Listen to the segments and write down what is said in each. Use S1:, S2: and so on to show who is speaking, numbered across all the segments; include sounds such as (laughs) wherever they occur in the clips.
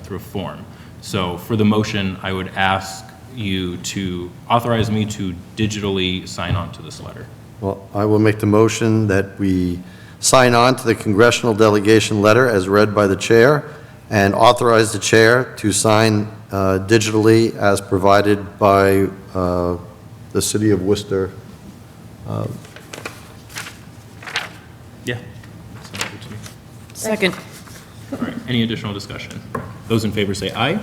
S1: through a form. So for the motion, I would ask you to authorize me to digitally sign on to this letter.
S2: Well, I will make the motion that we sign on to the congressional delegation letter as read by the chair and authorize the chair to sign uh, digitally as provided by uh, the city of Worcester.
S1: Yeah. Sounds good to me.
S3: Second.
S1: All right, any additional discussion? Those in favor say aye.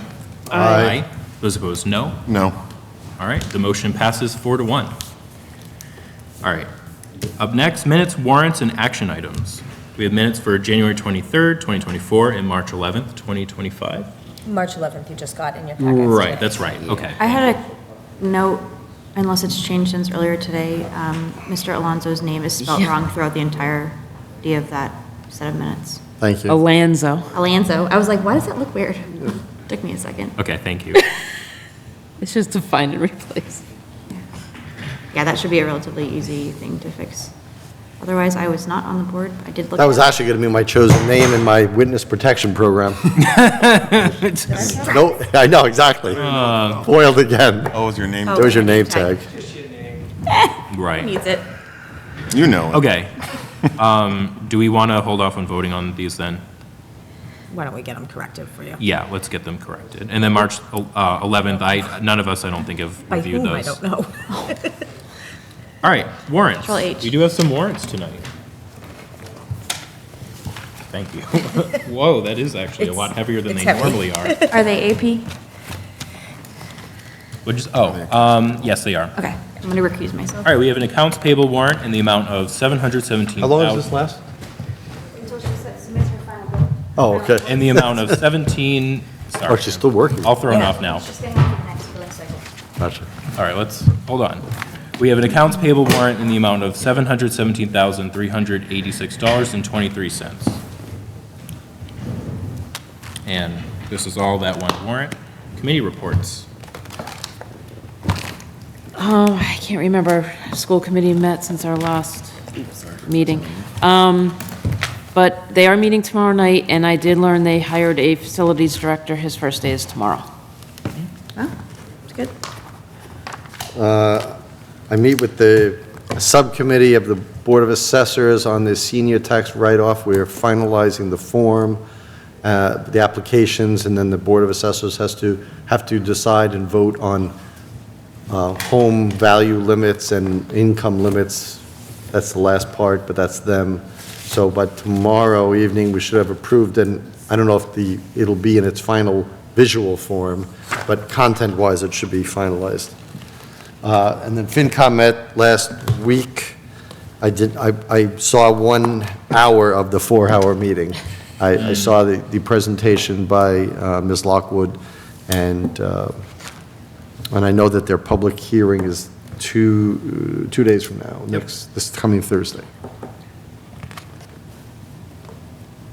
S2: Aye.
S1: Those opposed, no.
S4: No.
S1: All right, the motion passes four to one. All right, up next, minutes, warrants, and action items. We have minutes for January 23rd, 2024, and March 11th, 2025.
S5: March 11th, you just got in your packets.
S1: Right, that's right, okay.
S6: I had a note, unless it's changed since earlier today, um, Mr. Alonso's name is spelled wrong throughout the entirety of that set of minutes.
S2: Thank
S3: Oh,
S2: you.
S3: Alanzo.
S6: Alonso, I was like, why does that look weird? (laughs) Took me a second.
S1: Okay,
S5: (laughs)
S1: thank you.
S3: It's just to find and replace.
S6: Yeah, that should be a relatively easy thing to fix. Otherwise, I was not on the board. I did look.
S2: That was
S6: at it.
S2: actually going to be my chosen name in my witness protection program. No, (laughs) I know, exactly.
S1: Oh. Uh,
S2: Foiled again.
S4: Oh, is your name?
S2: That was your name tag.
S1: Right,
S6: (laughs) Needs it.
S4: You know it.
S1: okay. Um, Do we want to hold off on voting on these then?
S5: Why don't we get them corrected for you?
S1: Yeah, let's get them corrected. And then March uh, 11th, I, none of us, I don't think, have
S5: By
S1: reviewed
S5: whom, I
S1: those.
S5: don't know. (laughs)
S1: (laughs) All right, warrants.
S6: Control H.
S1: We do have some warrants tonight. Thank you. (laughs) Whoa, that is actually a lot
S5: It's-
S1: heavier than
S5: it's
S1: they
S5: heavy.
S1: normally are.
S5: (laughs)
S6: Are they AP?
S1: Which is, oh, um, yes, they are.
S6: Okay, I'm going to recuse myself.
S1: All right, we have an accounts payable warrant in the amount of $717,000.
S2: How long does this last? Oh, okay.
S1: In the amount of 17, sorry.
S2: Oh, she's still working.
S1: All thrown off now.
S2: Gotcha.
S1: All right, let's, hold on. We have an accounts payable warrant in the amount of $717,386.23. And this is all that one warrant. Committee reports.
S3: Oh, I can't remember. School committee met since our last meeting. Um, But they are meeting tomorrow night, and I did learn they hired a facilities director. His first day is tomorrow.
S2: Uh, I meet with the subcommittee of the Board of Assessors on the senior tax write-off. We are finalizing the form, uh, the applications, and then the Board of Assessors has to, have to decide and vote on uh, home value limits and income limits. That's the last part, but that's them. So by tomorrow evening, we should have approved, and I don't know if the, it'll be in its final visual form, but content-wise, it should be finalized. Uh, And then FinCom met last week. I did, I, I saw one hour of the four-hour meeting. I, I saw the, the presentation by uh, Ms. Lockwood, and, uh, and I know that their public hearing is two, two days from now, next, this coming Thursday.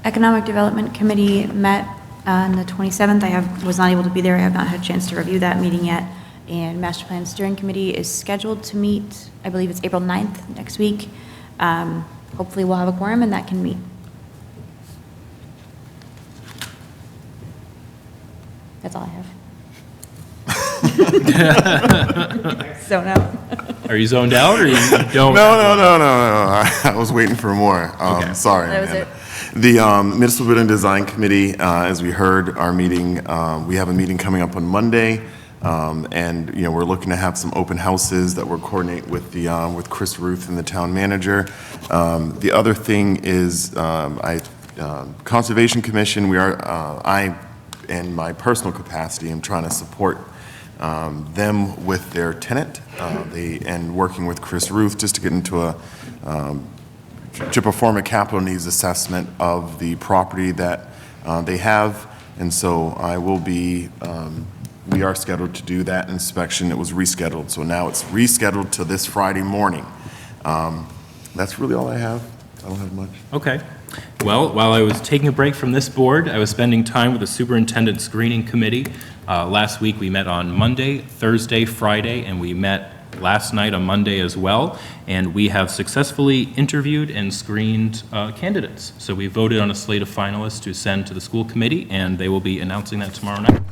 S6: Economic Development Committee met uh, on the 27th. I have, was not able to be there. I have not had a chance to review that meeting yet. And Master Plan Steering Committee is scheduled to meet, I believe it's April 9th, next week. Um, Hopefully, we'll have a quorum and that can meet. That's all I have. (laughs) So no.
S1: Are you zoned out or you
S2: (laughs)
S1: don't?
S4: No, no, no, no, no. (laughs) no. I was waiting for more. Um, sorry.
S6: That was
S4: Amanda. The um, Municipal Building Design Committee, uh, as we heard, our meeting, uh, we have a meeting coming up on Monday. Um, and, you know, we're looking to have some open houses that we're coordinating with the, uh, with Chris Ruth and the town manager. Um, the other thing is, um, I, um Conservation Commission, we are, uh, I, in my personal capacity, am trying to support um, them with their tenant, uh, they, and working with Chris Ruth just to get into a, um, to perform a capital needs assessment of the property that uh, they have. And so I will be, um, we are scheduled to do that inspection. It was rescheduled, so now it's rescheduled to this Friday morning. Um, That's really all I have. I don't have much.
S1: Okay. Well, while I was taking a break from this board, I was spending time with the Superintendent Screening Committee. Uh, Last week, we met on Monday, Thursday, Friday, and we met last night on Monday as well, and we have successfully interviewed and screened uh, candidates. So we voted on a slate of finalists to send to the school committee, and they will be announcing that tomorrow night.